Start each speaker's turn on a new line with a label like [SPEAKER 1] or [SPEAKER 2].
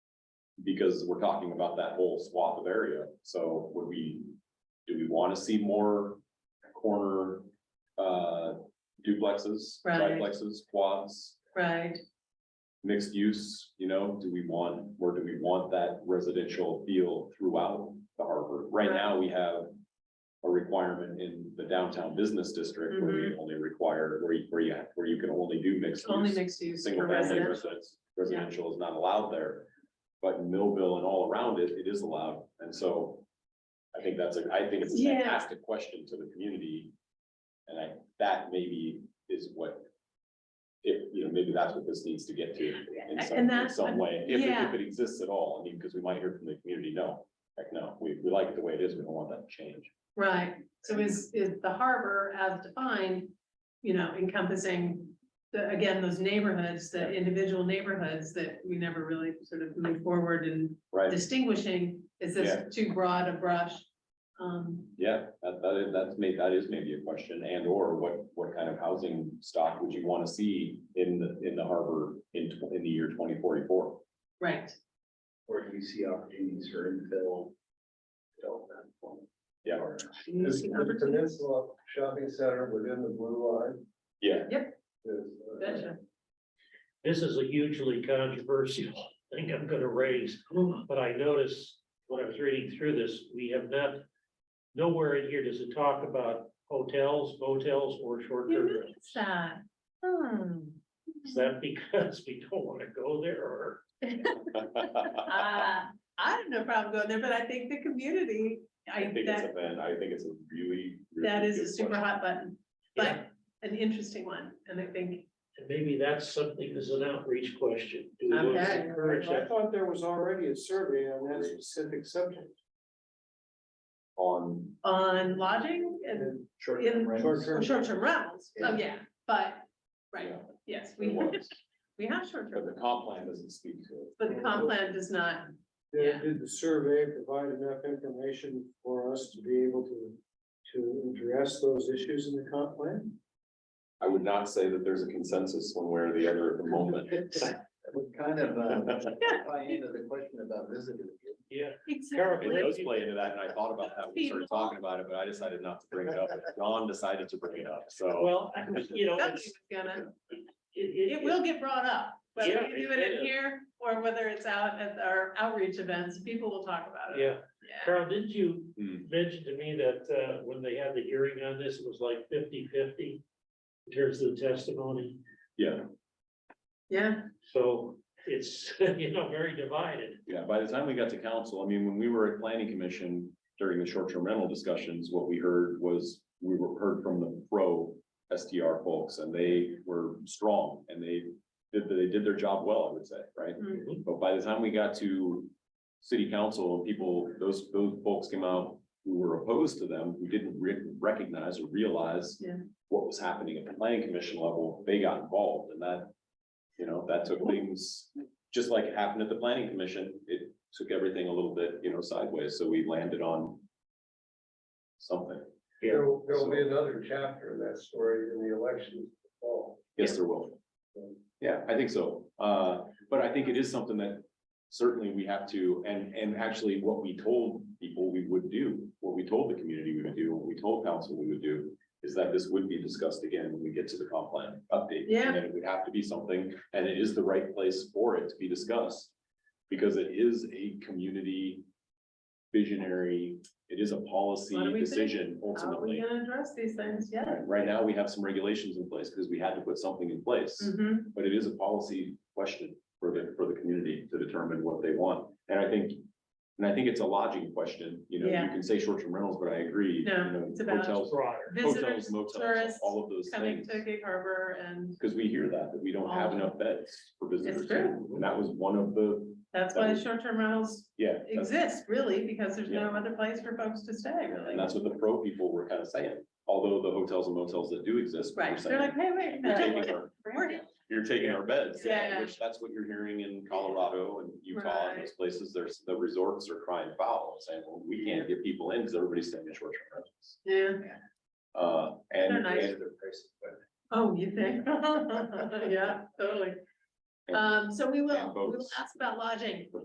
[SPEAKER 1] Because we're talking about that whole swath of area, so would we, do we wanna see more corner, uh, duplexes,
[SPEAKER 2] Right.
[SPEAKER 1] triplexes, quads?
[SPEAKER 2] right?
[SPEAKER 1] Mixed use, you know, do we want, or do we want that residential feel throughout the harbor? Right now, we have. A requirement in the downtown business district where we only require, where you, where you, where you can only do mixed
[SPEAKER 2] Mm-hmm. Only
[SPEAKER 1] use
[SPEAKER 2] mixed use
[SPEAKER 1] single
[SPEAKER 2] for
[SPEAKER 1] family
[SPEAKER 2] residents.
[SPEAKER 1] residence, residential is not allowed there. But in Millville and all around it, it is allowed, and so. I think that's a, I think it's a
[SPEAKER 2] Yeah.
[SPEAKER 1] fantastic question to the community. And I, that maybe is what. If, you know, maybe that's what this needs to get to in
[SPEAKER 2] And
[SPEAKER 1] some, in
[SPEAKER 2] that's-
[SPEAKER 1] some way, if, it- if
[SPEAKER 2] yeah.
[SPEAKER 1] it exists at all, I mean, because we might hear from the community, no. Heck, no, we, we like it the way it is, we don't want that to change.
[SPEAKER 2] Right, so is, is the harbor as defined, you know, encompassing the, again, those neighborhoods, the individual neighborhoods that we never really sort of moved forward in
[SPEAKER 1] Right,
[SPEAKER 2] distinguishing, is
[SPEAKER 1] Yeah.
[SPEAKER 2] this too broad a brush? Um,
[SPEAKER 1] yeah, that, that is, that's made, that is maybe a question, and or what, what kind of housing stock would you want to see in the, in the harbor in, tw- in the year twenty forty-four?
[SPEAKER 2] right,
[SPEAKER 3] Or do you see opportunities for infill? development?
[SPEAKER 1] Yeah,
[SPEAKER 4] Is the Peninsula Shopping Center within the blue line?
[SPEAKER 1] yeah,
[SPEAKER 4] Is, uh,
[SPEAKER 2] gotcha,
[SPEAKER 5] This is a hugely controversial thing I'm gonna raise, but I noticed when I was reading through this, we have not. Nowhere in here does it talk about hotels, motels, or
[SPEAKER 2] you
[SPEAKER 5] short-term rentals.
[SPEAKER 2] noticed that, hmm,
[SPEAKER 5] Is that because we don't wanna go there or?
[SPEAKER 2] uh, I have no problem going there, but I think the community,
[SPEAKER 1] I
[SPEAKER 2] I,
[SPEAKER 1] think it's
[SPEAKER 2] that,
[SPEAKER 1] a, man, I think it's a really. really
[SPEAKER 2] that is a
[SPEAKER 1] good
[SPEAKER 2] super
[SPEAKER 1] question.
[SPEAKER 2] hot button, but an interesting one, and I think,
[SPEAKER 5] And Maybe that's something as an outreach question. Do we want
[SPEAKER 2] Okay.
[SPEAKER 5] to encourage
[SPEAKER 4] I
[SPEAKER 5] that?
[SPEAKER 4] thought there was already a survey on that specific subject.
[SPEAKER 1] On,
[SPEAKER 2] on lodging and
[SPEAKER 3] Short-term
[SPEAKER 2] In-
[SPEAKER 3] rentals.
[SPEAKER 4] Short-term.
[SPEAKER 2] Short-term rentals, oh, yeah, but, right,
[SPEAKER 1] yeah,
[SPEAKER 2] yes,
[SPEAKER 1] it
[SPEAKER 2] we,
[SPEAKER 1] was,
[SPEAKER 2] we have short-term,
[SPEAKER 1] but the comp plan doesn't speak to it.
[SPEAKER 2] but the comp plan does not,
[SPEAKER 4] They
[SPEAKER 2] Yeah.
[SPEAKER 4] did the survey, provide enough information for us to be able to, to address those issues in the comp plan?
[SPEAKER 1] I would not say that there's a consensus one way or the other at the moment.
[SPEAKER 3] Would kind of, uh, tie into the question about visiting.
[SPEAKER 5] Yeah,
[SPEAKER 1] It
[SPEAKER 2] exactly,
[SPEAKER 1] does play into that, and I thought about that, when we started talking about it, but I decided not to bring it up, and John decided to bring it up, so.
[SPEAKER 5] well, you know,
[SPEAKER 2] somebody's
[SPEAKER 5] it's-
[SPEAKER 2] gonna,
[SPEAKER 5] it,
[SPEAKER 2] it will get brought up. Whether
[SPEAKER 5] Yeah,
[SPEAKER 2] we do
[SPEAKER 5] it
[SPEAKER 2] it in
[SPEAKER 5] is.
[SPEAKER 2] here, or whether it's out at our outreach events, people will talk about it,
[SPEAKER 5] Yeah, Carol, did you
[SPEAKER 1] Hmm.
[SPEAKER 5] mentioned to me that uh, when they had the hearing on this, it was like 50-50 in terms of the testimony.
[SPEAKER 1] Yeah,
[SPEAKER 2] yeah,
[SPEAKER 5] So it's, you know, very divided.
[SPEAKER 1] yeah, by the time we got to council, I mean, when we were at planning commission during the short-term rental discussions, what we heard was, we were heard from the pro SDR folks, and they were strong, and they did, they did their job well, I would say, right?
[SPEAKER 2] Mm.
[SPEAKER 1] But by the time we got to city council and people, those, those folks came out who were opposed to them, who didn't re- recognize or realize
[SPEAKER 2] Yeah.
[SPEAKER 1] what was happening at the planning commission level, they got involved and that, you know, that took things, just like it happened at the planning commission, it took everything a little bit, you know, sideways, so we landed on something.
[SPEAKER 5] Yeah,
[SPEAKER 4] will- there'll be another chapter of that story in the election fall.
[SPEAKER 1] Yes, there will. Yeah, I think so. Uh, but I think it is something that certainly we have to, and, and actually what we told people we would do, what we told the community we would do, what we told council we would do, is that this would be discussed again when we get to the comp plan update.
[SPEAKER 2] Yeah.
[SPEAKER 1] And then it would have to be something, and it is the right place for it to be discussed, because it is a community visionary, it is a policy
[SPEAKER 2] What do we think?
[SPEAKER 1] decision
[SPEAKER 2] how are
[SPEAKER 1] ultimately.
[SPEAKER 2] we gonna address these things, yeah?
[SPEAKER 1] Right, Right now, we have some regulations in place because we had to put something in place,
[SPEAKER 2] Mhm.
[SPEAKER 1] but it is a policy question for the, for the community to determine what they want. And I think, and I think it's a lodging question, you know, you
[SPEAKER 2] Yeah.
[SPEAKER 1] can say short-term rentals, but I agree. you
[SPEAKER 2] No,
[SPEAKER 1] know,
[SPEAKER 2] it's about-
[SPEAKER 1] Hotels,
[SPEAKER 5] broader.
[SPEAKER 1] hotels,
[SPEAKER 2] Visitors,
[SPEAKER 1] motels,
[SPEAKER 2] tourists
[SPEAKER 1] all of those
[SPEAKER 2] coming
[SPEAKER 1] things.
[SPEAKER 2] to Gig Harbor, and
[SPEAKER 1] Because we hear that, that we don't have
[SPEAKER 2] All of
[SPEAKER 1] enough beds for visitors.
[SPEAKER 2] true.
[SPEAKER 1] And that was one of the,
[SPEAKER 2] that's why short-term rentals
[SPEAKER 1] yeah, that's-
[SPEAKER 2] exist, really, because there's no other place for folks to stay, really.
[SPEAKER 1] and that's what the pro people were kind of saying, although the hotels and motels that do exist. were
[SPEAKER 2] Right, they're
[SPEAKER 1] saying,
[SPEAKER 2] like, hey, wait.
[SPEAKER 1] You're taking
[SPEAKER 2] no,
[SPEAKER 1] our
[SPEAKER 2] we're-
[SPEAKER 1] you're taking our beds,
[SPEAKER 2] Yeah.
[SPEAKER 1] which that's what you're hearing in Colorado and Utah and those
[SPEAKER 2] Right.
[SPEAKER 1] places, there's, the resorts are crying foul, saying, well, we can't get people in because everybody's staying in short-term rentals.
[SPEAKER 2] Yeah.
[SPEAKER 1] Uh,
[SPEAKER 2] They're
[SPEAKER 1] and,
[SPEAKER 2] nice.
[SPEAKER 1] and-
[SPEAKER 2] Oh, you think? Yeah, totally.
[SPEAKER 1] and
[SPEAKER 2] Um, so we will,
[SPEAKER 1] And
[SPEAKER 2] we will
[SPEAKER 1] boats.
[SPEAKER 2] ask about lodging.